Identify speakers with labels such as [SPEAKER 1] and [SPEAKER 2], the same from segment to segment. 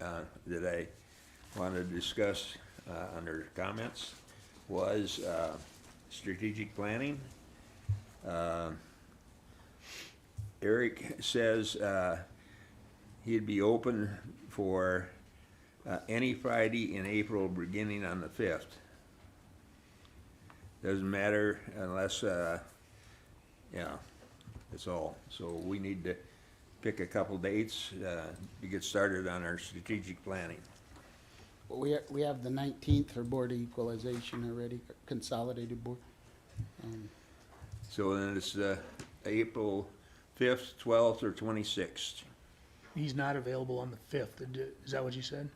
[SPEAKER 1] uh, that I wanted to discuss uh, under comments was uh, strategic planning. Uh, Eric says uh, he'd be open for uh, any Friday in April, beginning on the 5th. Doesn't matter unless, uh, yeah, that's all. So we need to pick a couple dates uh, to get started on our strategic planning.
[SPEAKER 2] Well, we, ha- we have the nineteenth for Board of Equalization already, Consolidated Board. Um,
[SPEAKER 1] So then it's uh, April 5th, 12th, or 26th.
[SPEAKER 3] He's not available on the fifth. Is that what you said?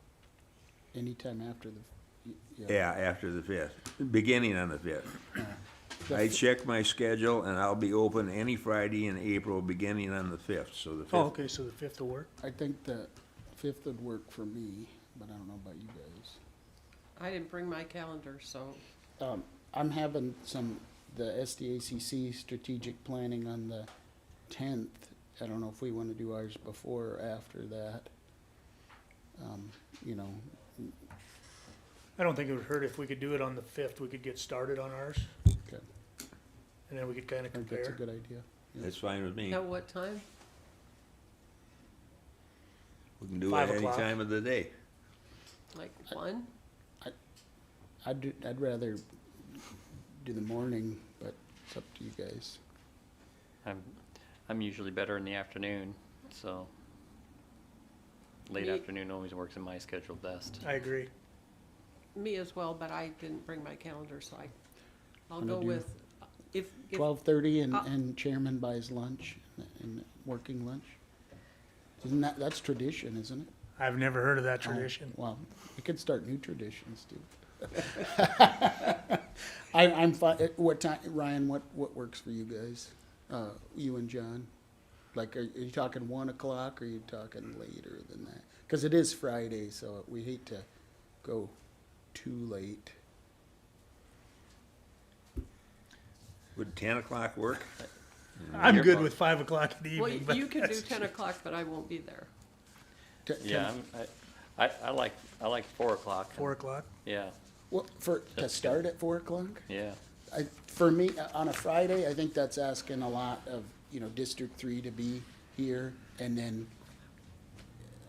[SPEAKER 2] Anytime after the, yeah.
[SPEAKER 1] Yeah, after the 5th, beginning on the 5th.
[SPEAKER 2] The
[SPEAKER 1] I
[SPEAKER 2] f-
[SPEAKER 1] check my schedule and I'll be open any Friday in April, beginning on the 5th, so the 5th.
[SPEAKER 3] Oh, okay, so the fifth will work.
[SPEAKER 2] I think the fifth would work for me, but I don't know about you guys.
[SPEAKER 4] I didn't bring my calendar, so
[SPEAKER 2] Um, I'm having some, the SDACC strategic planning on the tenth. I don't know if we want to do ours before or after that. Um, you know,
[SPEAKER 3] I don't think it would hurt if we could do it on the fifth. We could get started on ours
[SPEAKER 2] okay,
[SPEAKER 3] and then we could kind of
[SPEAKER 2] I think that's a
[SPEAKER 3] compare.
[SPEAKER 2] good idea.
[SPEAKER 1] That's fine with me.
[SPEAKER 4] at what time?
[SPEAKER 1] We can do it
[SPEAKER 3] Five
[SPEAKER 1] any
[SPEAKER 3] o'clock.
[SPEAKER 1] time of the day.
[SPEAKER 4] Like
[SPEAKER 3] Uh,
[SPEAKER 4] one?
[SPEAKER 2] I'd, do- I'd rather do the morning, but it's up to you guys.
[SPEAKER 5] I'm, I'm usually better in the afternoon, so late
[SPEAKER 4] Me-
[SPEAKER 5] afternoon always works in my schedule best.
[SPEAKER 3] I agree.
[SPEAKER 4] Me as well, but I didn't bring my calendar, so I, I'll
[SPEAKER 2] Wanna
[SPEAKER 4] go
[SPEAKER 2] do-
[SPEAKER 4] with, uh, if, if,
[SPEAKER 2] Twelve thirty and,
[SPEAKER 4] Uh,
[SPEAKER 2] and chairman buys lunch and working lunch. Isn't that, that's tradition, isn't it?
[SPEAKER 3] I've never heard of that tradition.
[SPEAKER 2] Well, we could start new traditions too. I, I'm fine, what time, Ryan, what, what works for you guys? Uh, you and John? Like, are, are you talking one o'clock or are you talking later than that? Cause it is Friday, so we hate to go too late.
[SPEAKER 1] Would 10 o'clock work?
[SPEAKER 3] I'm
[SPEAKER 5] You're
[SPEAKER 3] good
[SPEAKER 5] fine.
[SPEAKER 3] with five o'clock in the
[SPEAKER 4] well,
[SPEAKER 3] evening.
[SPEAKER 4] you
[SPEAKER 3] but
[SPEAKER 4] you can do
[SPEAKER 3] that's-
[SPEAKER 4] ten o'clock, but I won't be there.
[SPEAKER 2] T-
[SPEAKER 5] Yeah,
[SPEAKER 2] can-
[SPEAKER 5] I'm, I, I, I like, I like four o'clock.
[SPEAKER 3] Four o'clock.
[SPEAKER 5] Yeah,
[SPEAKER 2] Well, for, to
[SPEAKER 5] That's
[SPEAKER 2] start at four o'clock?
[SPEAKER 5] yeah.
[SPEAKER 2] I, for me, uh, on a Friday, I think that's asking a lot of, you know, District Three to be here, and then,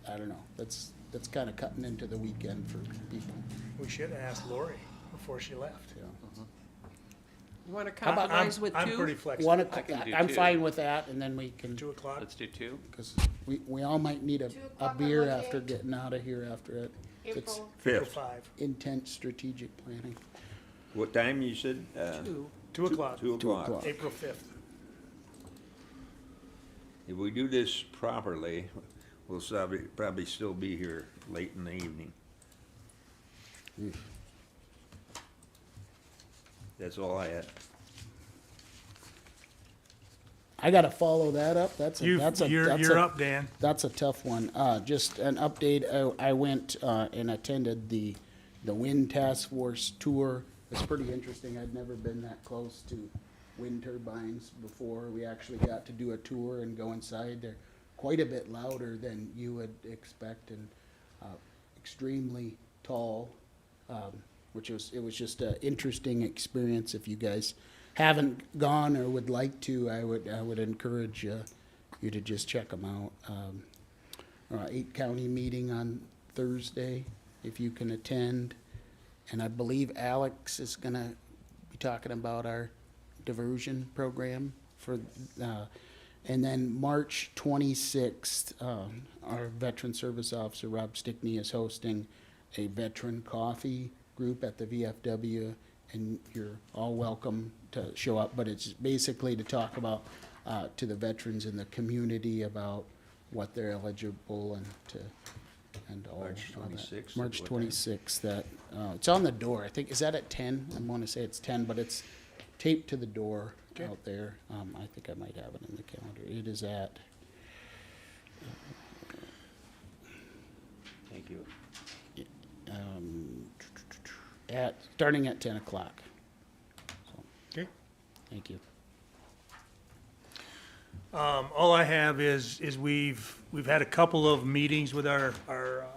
[SPEAKER 2] I don't know, that's, that's kinda cutting into the weekend for people,
[SPEAKER 3] We should have asked Lori before she left.
[SPEAKER 2] you know.
[SPEAKER 4] You wanna
[SPEAKER 3] I'm- I'm-
[SPEAKER 4] compromise with
[SPEAKER 3] I'm pretty
[SPEAKER 4] two?
[SPEAKER 3] flexible.
[SPEAKER 2] One,
[SPEAKER 5] I can
[SPEAKER 2] o'clock-
[SPEAKER 5] do
[SPEAKER 2] I'm
[SPEAKER 5] two.
[SPEAKER 2] fine with that, and then we can,
[SPEAKER 3] Two o'clock.
[SPEAKER 5] Let's do two.
[SPEAKER 2] cause we, we all might need a,
[SPEAKER 6] Two
[SPEAKER 2] a
[SPEAKER 6] o'clock on
[SPEAKER 2] beer
[SPEAKER 6] what
[SPEAKER 2] after
[SPEAKER 6] day?
[SPEAKER 2] getting out of here after it. It's
[SPEAKER 6] April,
[SPEAKER 3] till
[SPEAKER 1] 5th.
[SPEAKER 3] Five.
[SPEAKER 2] intense strategic planning,
[SPEAKER 1] What time you said? Uh,
[SPEAKER 4] Two.
[SPEAKER 3] Two o'clock,
[SPEAKER 1] Two
[SPEAKER 2] Two
[SPEAKER 1] o'clock.
[SPEAKER 2] o'clock.
[SPEAKER 3] April fifth.
[SPEAKER 1] If we do this properly, we'll probably, probably still be here late in the evening. That's all I had.
[SPEAKER 2] I gotta follow that up, that's a,
[SPEAKER 3] You,
[SPEAKER 2] that's a,
[SPEAKER 3] you're,
[SPEAKER 2] that's
[SPEAKER 3] you're
[SPEAKER 2] a-
[SPEAKER 3] up, Dan.
[SPEAKER 2] That's a tough one. Uh, just an update, I, I went, uh, and attended the, the wind task force tour. It's pretty interesting. I'd never been that close to wind turbines before. We actually got to do a tour and go inside. They're quite a bit louder than you would expect and, uh, extremely tall. Um, which was, it was just an interesting experience. If you guys haven't gone or would like to, I would, I would encourage, uh, you to just check them out. Um, uh, eight county meeting on Thursday, if you can attend. And I believe Alex is gonna be talking about our diversion program for, uh, and then March twenty-sixth, um, our Veteran Service Officer, Rob Stickney, is hosting a veteran coffee group at the VFW, and you're all welcome to show up, but it's basically to talk about, uh, to the veterans in the community about what they're eligible and to, and all.
[SPEAKER 1] March
[SPEAKER 2] all that.
[SPEAKER 1] 26th at
[SPEAKER 2] March
[SPEAKER 1] what time?
[SPEAKER 2] twenty-sixth, that, uh, it's on the door, I think, is that at ten? I wanna say it's ten, but it's taped to the door
[SPEAKER 3] Okay.
[SPEAKER 2] out there. Um, I think I might have it in the calendar. It is at,
[SPEAKER 1] Thank you.
[SPEAKER 2] um, at, starting at ten o'clock. So,
[SPEAKER 3] Okay.
[SPEAKER 2] Thank you.
[SPEAKER 3] Um, all I have is, is we've, we've had a couple of meetings with our, our uh,